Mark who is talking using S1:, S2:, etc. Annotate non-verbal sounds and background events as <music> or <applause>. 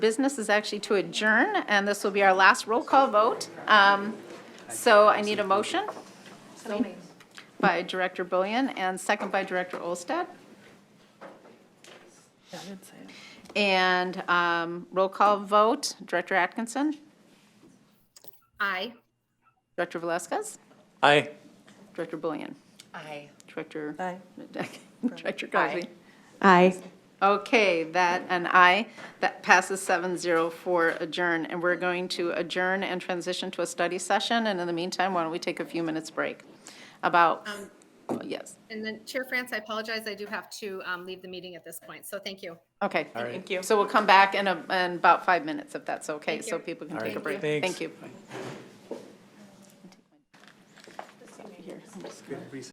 S1: business is actually to adjourn, and this will be our last roll call vote. Um, So I need a motion by Director Bullion and second by Director Olstad. And um, roll call vote, Director Atkinson,
S2: Aye.
S1: Director Velazquez,
S3: Aye.
S1: Director Bullion,
S2: Aye.
S1: Director.
S4: Aye.
S1: <laughs> Director Cosby.
S4: Aye.
S1: Okay, that, and I that passes seven zero for adjourn. And we're going to adjourn and transition to a study session, and in the meantime, why don't we take a few minutes break? About,
S2: Um.
S1: yes,
S2: And then Chair France, I apologize, I do have to um, leave the meeting at this point, so thank you.
S1: okay. Thank you. So we'll come back in, a- in about five minutes, if that's okay, so people can
S3: All
S1: take a
S3: right.
S1: break.
S3: Thanks.
S1: Thank you.